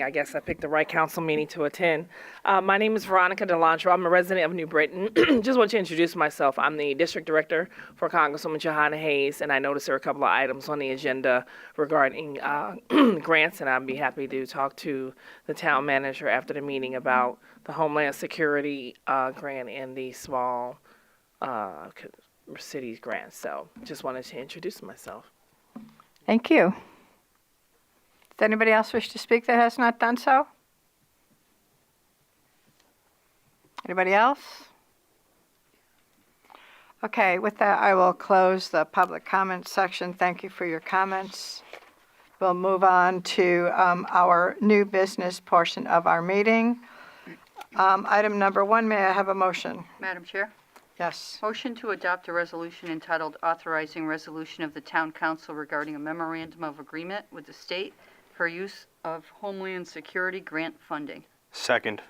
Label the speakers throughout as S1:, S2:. S1: I guess I picked the right council meeting to attend. Uh, my name is Veronica Delantro. I'm a resident of New Britain. Just want to introduce myself. I'm the district director for Congresswoman Johanna Hayes, and I noticed there are a couple of items on the agenda regarding uh, grants, and I'd be happy to talk to the town manager after the meeting about the Homeland Security uh, grant and the small uh, c- cities grant. So just wanted to introduce myself.
S2: Thank you. Does anybody else wish to speak that has not done so? Anybody else? Okay, with that, I will close the public comments section. Thank you for your comments. We'll move on to um, our new business portion of our meeting. Um, Item number one, may I have a motion?
S3: Madam Chair,
S2: Yes.
S3: motion to adopt a resolution entitled authorizing resolution of the town council regarding a memorandum of agreement with the state for use of Homeland Security grant funding.
S4: Second.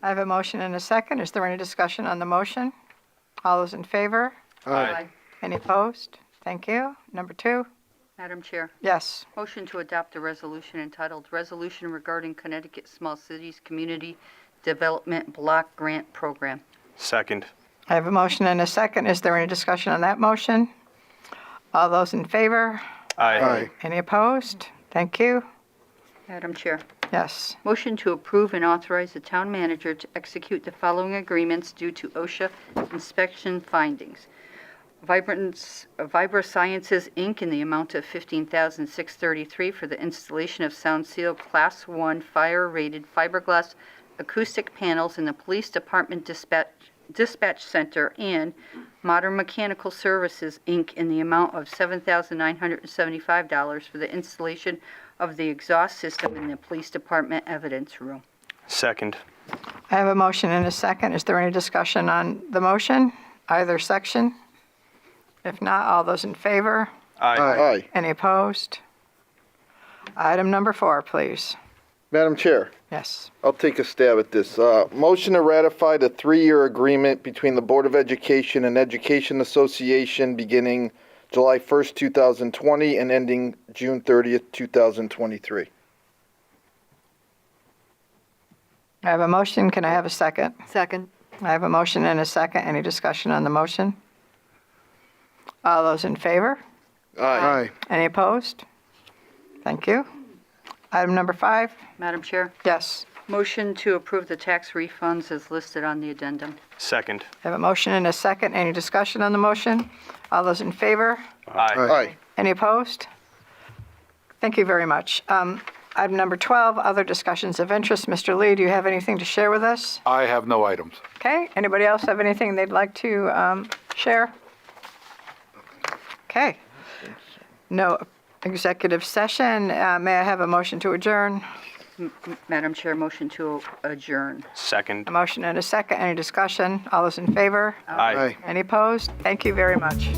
S2: I have a motion and a second. Is there any discussion on the motion? All those in favor? Any opposed? Thank you. Number two?
S3: Madam Chair,
S2: Yes.
S3: motion to adopt a resolution entitled Resolution Regarding Connecticut Small Cities Community Development Block Grant Program.
S4: Second.
S2: I have a motion and a second. Is there any discussion on that motion? All those in favor?
S4: Aye.
S2: Any opposed? Thank you.
S3: Madam Chair,
S2: Yes.
S3: motion to approve and authorize the town manager to execute the following agreements due to OSHA inspection findings. Vibrance, Vibra Sciences, Inc., in the amount of $15,633 for the installation of Sound Seal Class 1 fire-rated fiberglass acoustic panels in the Police Department Dispatch Dispatch Center, and Modern Mechanical Services, Inc., in the amount of $7,975 for the installation of the exhaust system in the Police Department Evidence Room.
S4: Second.
S2: I have a motion and a second. Is there any discussion on the motion, either section? If not, all those in favor?
S4: Aye.
S5: Aye.
S2: Any opposed? Item number four, please.
S5: Madam Chair,
S2: Yes.
S5: I'll take a stab at this. Uh, Motion to ratify the three-year agreement between the Board of Education and Education Association beginning July 1st, 2020 and ending June 30th, 2023.
S2: I have a motion. Can I have a second?
S6: Second.
S2: I have a motion and a second. Any discussion on the motion? All those in favor?
S5: Aye.
S2: Any opposed? Thank you. Item number five,
S3: Madam Chair,
S2: yes.
S3: motion to approve the tax refunds as listed on the addendum.
S4: Second.
S2: I have a motion and a second. Any discussion on the motion? All those in favor?
S4: Aye.
S5: Aye.
S2: Any opposed? Thank you very much. Um, Item number 12, other discussions of interest. Mr. Lee, do you have anything to share with us?
S7: I have no items.
S2: Okay, anybody else have anything they'd like to um, share? Okay. No executive session. Uh, May I have a motion to adjourn?
S3: Madam Chair, motion to adjourn.
S4: Second.
S2: A motion and a second. Any discussion? All those in favor?
S4: Aye.
S2: Any opposed? Thank you very much.